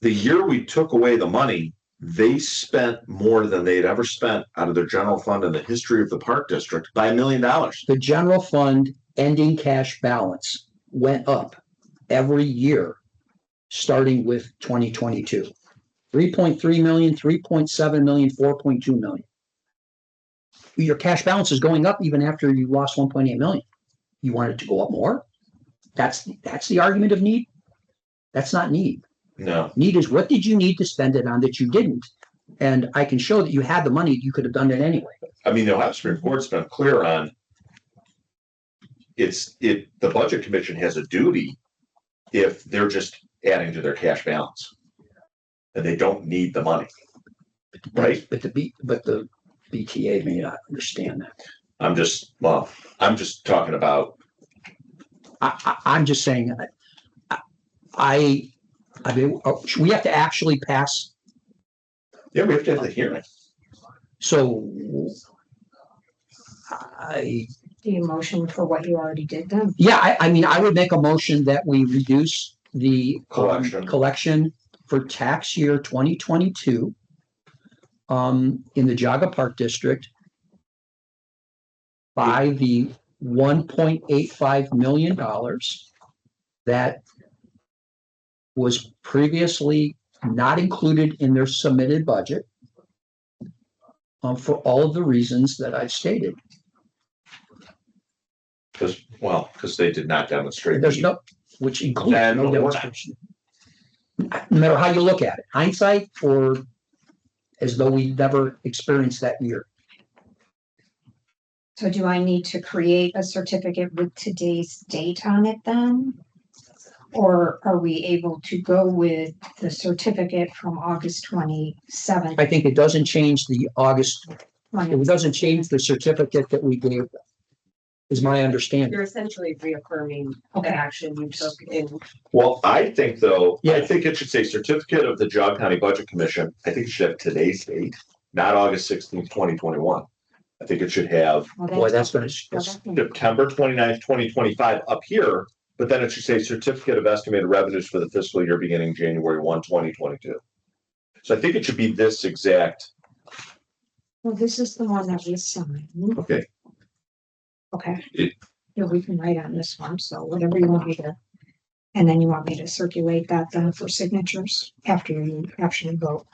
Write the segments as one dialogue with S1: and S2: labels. S1: the year we took away the money, they spent more than they'd ever spent out of their general fund in the history of the park district by a million dollars.
S2: The general fund ending cash balance went up every year, starting with twenty twenty-two. Three point three million, three point seven million, four point two million. Your cash balance is going up even after you lost one point eight million. You want it to go up more? That's, that's the argument of need? That's not need
S1: No,
S2: need is what did you need to spend it on that you didn't? And I can show that you had the money, you could have done it anyway.
S1: I mean, the Ohio Supreme Court's been clear on it's, it, the Budget Commission has a duty if they're just adding to their cash balance. And they don't need the money. Right.
S2: But the B, but the BTA may not understand that.
S1: I'm just, well, I'm just talking about,
S2: I, I, I'm just saying, I, I, I mean, oh, we have to actually pass,
S1: yeah, we have to have the hearing.
S2: so I,
S3: Do you motion for what you already did then?
S2: yeah, I, I mean, I would make a motion that we reduce the um,
S1: Collection.
S2: collection for tax year twenty twenty-two um, in the Jaga Park District by the one point eight five million dollars that was previously not included in their submitted budget um, for all of the reasons that I've stated.
S1: Because, well, because they did not demonstrate.
S2: There's
S1: the-
S2: no, which includes
S1: Then
S2: no
S1: what?
S2: demonstration. No matter how you look at it, hindsight or as though we never experienced that year.
S3: So do I need to create a certificate with today's date on it then? Or are we able to go with the certificate from August twenty-seventh?
S2: I think it doesn't change the August, it doesn't change the certificate that we gave. them, Is my understanding.
S4: You're essentially reaffirming the
S3: Okay.
S4: action you took in
S1: Well, I think though, I
S2: Yeah.
S1: think it should say certificate of the Jog County Budget Commission. I think it should have today's date, not August sixteenth, twenty twenty-one. I think it should have
S2: Boy, that's gonna, that's-
S1: September 29th, twenty-five up here, but then it should say certificate of estimated revenues for the fiscal year beginning January 1, 2022. So I think it should be this exact,
S3: Well, this is the one that we signed.
S1: okay,
S3: Okay.
S1: It-
S3: Yeah, we can write on this one, so whatever you want me to. And then you want me to circulate that then for signatures after you actually vote.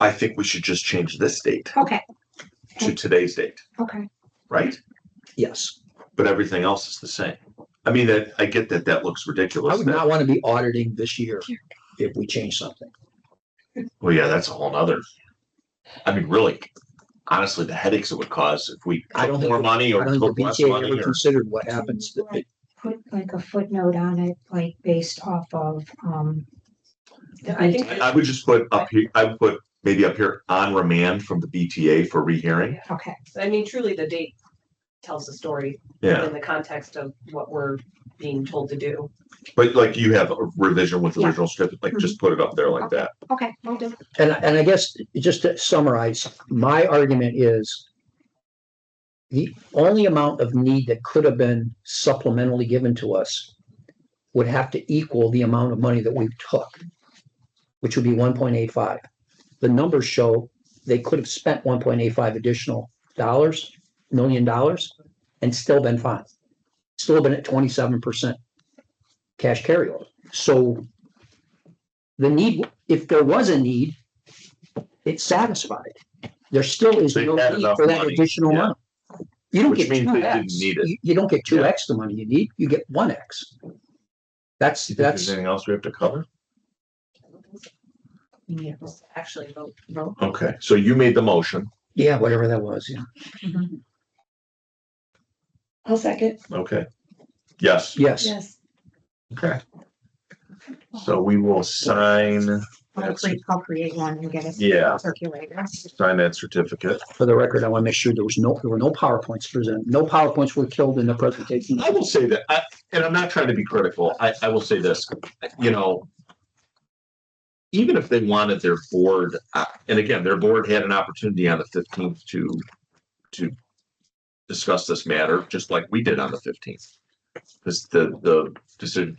S1: I think we should just change this date
S3: Okay,
S1: to today's date,
S3: okay.
S1: right?
S2: yes.
S1: But everything else is the same. I mean, that, I get that that looks
S2: I
S1: ridiculous.
S2: would
S1: that-
S2: not want to be auditing this year if we change something.
S1: Well, yeah, that's a whole nother. I mean, really, honestly, the headaches it would cause if we
S2: I don't
S1: took
S2: think
S1: more
S2: the-
S1: money
S2: I
S1: or
S2: don't think the
S1: took less
S2: BTA
S1: money
S2: ever
S1: or.
S2: considered what happens. that they-
S3: Put like a footnote on it, like based off of, um.
S4: Yeah, I think-
S1: I I would just put up here, I would put maybe up here on remand from the BTA for rehearing.
S3: Okay,
S4: I mean, truly, the date tells the story
S1: Yeah,
S4: in the context of what we're being told to do.
S1: but like you have a revision with the
S3: Yeah.
S1: original script, like just put it up there like that.
S3: okay, will do.
S2: And, and I guess, just to summarize, my argument is the only amount of need that could have been supplementally given to us would have to equal the amount of money that we took, which would be one point eight five. The numbers show they could have spent one point eight five additional dollars, million dollars, and still been fine. Still been at twenty-seven percent cash carryover. So the need, if there was a need, it's satisfied. There still is
S1: They
S2: no
S1: had
S2: need
S1: enough
S2: for that
S1: money,
S2: additional
S1: yeah.
S2: money. You don't
S1: Which
S2: get
S1: means they
S2: two
S1: didn't
S2: X,
S1: need it.
S2: you, you don't get two
S1: Yeah.
S2: X the money you need, you get one X. That's,
S1: Do you think there's
S2: that's,
S1: Anything else we have to cover?
S4: You need to Actually, vote, vote.
S1: Okay, so you made the motion.
S2: yeah, whatever that was, yeah,
S4: I'll second.
S1: Okay. Yes.
S2: yes.
S4: Yes.
S1: Okay. So we will sign,
S3: I'll create, I'll create one and get it.
S1: Yeah.
S3: Circulated.
S1: sign that certificate.
S2: For the record, I want to make sure there was no, there were no PowerPoints presented, no PowerPoints were killed in the presentation.
S1: I will say that, I, and I'm not trying to be critical, I, I will say this, you know. Even if they wanted their board, uh, and again, their board had an opportunity on the fifteenth to, to. Discuss this matter, just like we did on the fifteenth. Because the, the decision